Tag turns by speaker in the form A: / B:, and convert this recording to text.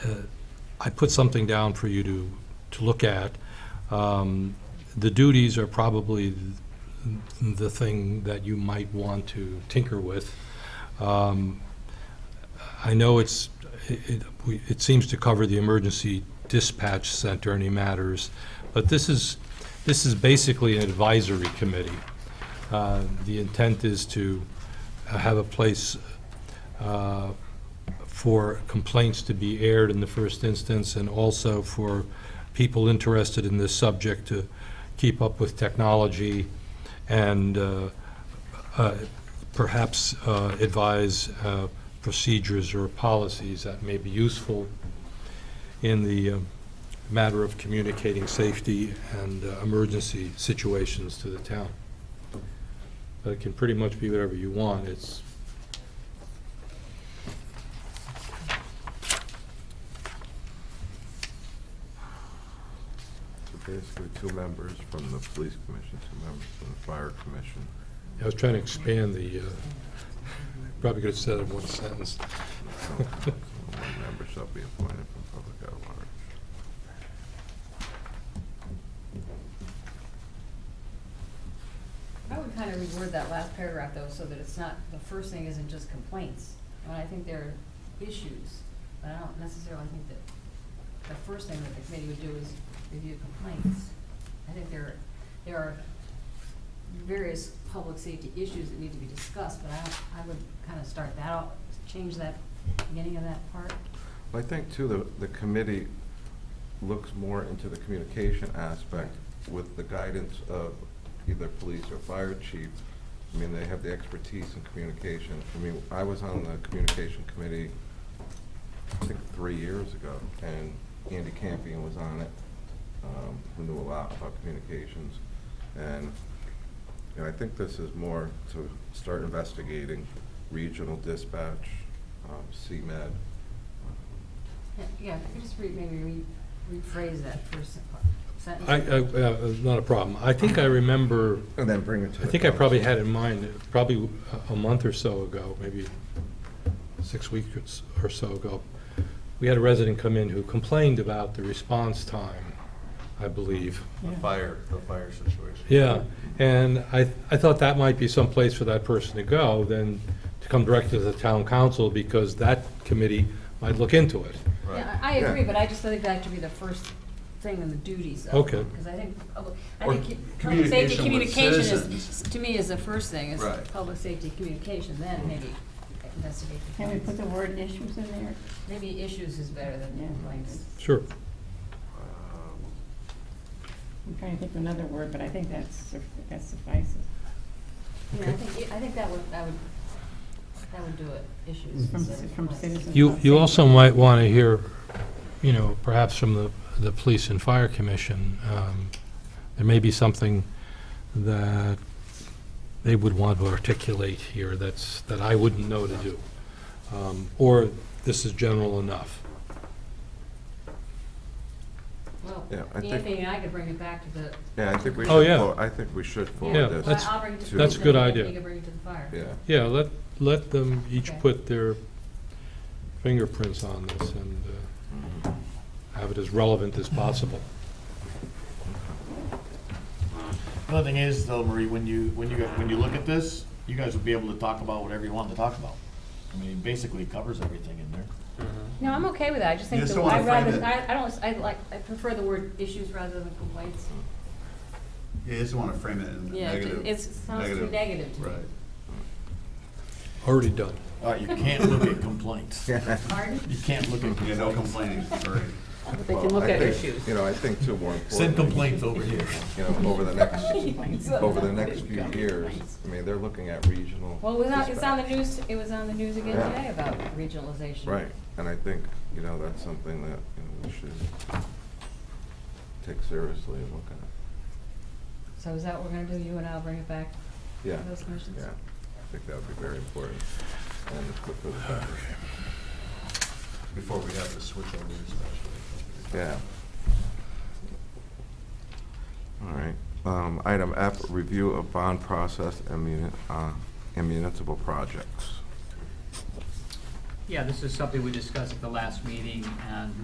A: I put something down for you to, to look at. Um, The duties are probably the thing that you might want to tinker with. Um, I know it's, it, it- we- it seems to cover the emergency dispatch center, any matters, but this is, this is basically an advisory committee. Uh, The intent is to have a place uh, for complaints to be aired in the first instance, and also for people interested in this subject to keep up with technology and uh, uh, perhaps uh, advise uh, procedures or policies that may be useful in the uh, matter of communicating safety and uh, emergency situations to the town. But it can pretty much be whatever you want. It's,
B: So basically, two members from the police commission, two members from the fire commission.
A: I was trying to expand the, uh, probably could have said it in one sentence.
B: and so One member shall be appointed from public at large.
C: I would kind of reword that last paragraph though, so that it's not, the first thing isn't just complaints. And I think there are issues, but I don't necessarily think that the first thing that the committee would do is review complaints. I think there, there are various public safety issues that need to be discussed, but I, don't- I would kind of start that out, change that, beginning of that part.
B: Well, I think too, the, the committee looks more into the communication aspect with the guidance of either police or fire chief. I mean, they have the expertise in communication. I mean, I was on the communication committee, I think, three years ago, and Andy Campion was on it, um, who knew a lot about communications. And and I think this is more to start investigating regional dispatch, um, CMed.
C: Yeah, Yeah, if you just re, maybe re, rephrase that first part- sentence.
A: I, I, uh, not a problem. I think I remember,
B: And then bring it to
A: I think I probably had in mind, probably a a month or so ago, maybe six weeks or so ago, we had a resident come in who complained about the response time, I believe.
D: The fire, the fire situation.
A: Yeah, and I, I thought that might be some place for that person to go, then to come directly to the town council, because that committee might look into it.
D: Right.
C: Yeah, I I agree,
B: Yeah.
C: but I just think that should be the first thing in the duties of
A: Okay.
C: Because I think, public- I
D: Or
C: think ki- public safety
D: communication with
C: communication is,
D: citizens.
C: to me, is the first thing, is
D: Right.
C: public safety communication,
B: Mm.
C: then maybe investigate
E: Can we put
C: complaints.
E: the word issues in there?
C: Maybe issues is better than
E: Yeah.
C: complaints.
A: Sure.
B: Um,
E: I'm trying to think of another word, but I think that's, suf- that suffices.
C: Yeah, I
A: Okay.
C: think, I think that would, that would, that would do it, issues.
E: From
C: instead
E: ci-
C: of
E: from
C: complaints.
E: citizens.
A: You, you also might want to hear, you know, perhaps from the, the Police and Fire Commission, um, there may be something that they would want to articulate here that's, that I wouldn't know to do. Um, Or this is general enough.
C: Well,
B: Yeah, I think-
C: Anthony and I could bring it back to the.
B: Yeah, I think we
A: Oh,
B: should,
A: yeah.
B: for- I think we should
A: Yeah,
B: forward this.
A: that's-
C: I'll bring it to-
A: that's a good idea.
C: You can bring it to the fire.
B: Yeah,
A: Yeah, let, let them each
C: Okay.
A: put their fingerprints on this and uh, have it as relevant as possible.
F: The other thing is, though, Marie, when you, when you, when you look at this, you guys will be able to talk about whatever you want to talk about. I mean, it basically covers everything in there.
C: No, I'm okay with that, I just think,
F: You just
C: the-
F: don't wanna
C: I'd rather,
F: frame it.
C: I, I don't, I like, I prefer the word issues rather than complaints.
D: You just want to frame it in
C: Yeah, it-
D: negative.
C: it's- it sounds too negative to me.
D: Right.
A: Already done.
F: All right, you can't look at complaints. You
C: Pardon?
F: can't look at,
D: Yeah,
F: complaints.
D: no complaining, sorry.
E: They
B: Well, I think, You know, I think too, more importantly.
F: send complaints over here.
B: You know, over the next,
E: Complaints.
B: over the next few years, I mean, they're looking at regional.
C: Well, it was on, it's on the
B: dispatch.
C: news, it was on the news again
B: Yeah.
C: today about regionalization.
B: Right, and I think, you know, that's something that, you know, we should take seriously and look at.
C: So is that what we're gonna do, you and I'll bring it back?
B: Yeah,
C: Those motions?
B: yeah, I think that would be very important. And it's good for the
D: Before we have to switch over to special.
B: Yeah. All right. Um, Item F, review of bond process and muni- uh, and municipal projects.
G: Yeah, this is something we discussed at the last meeting, and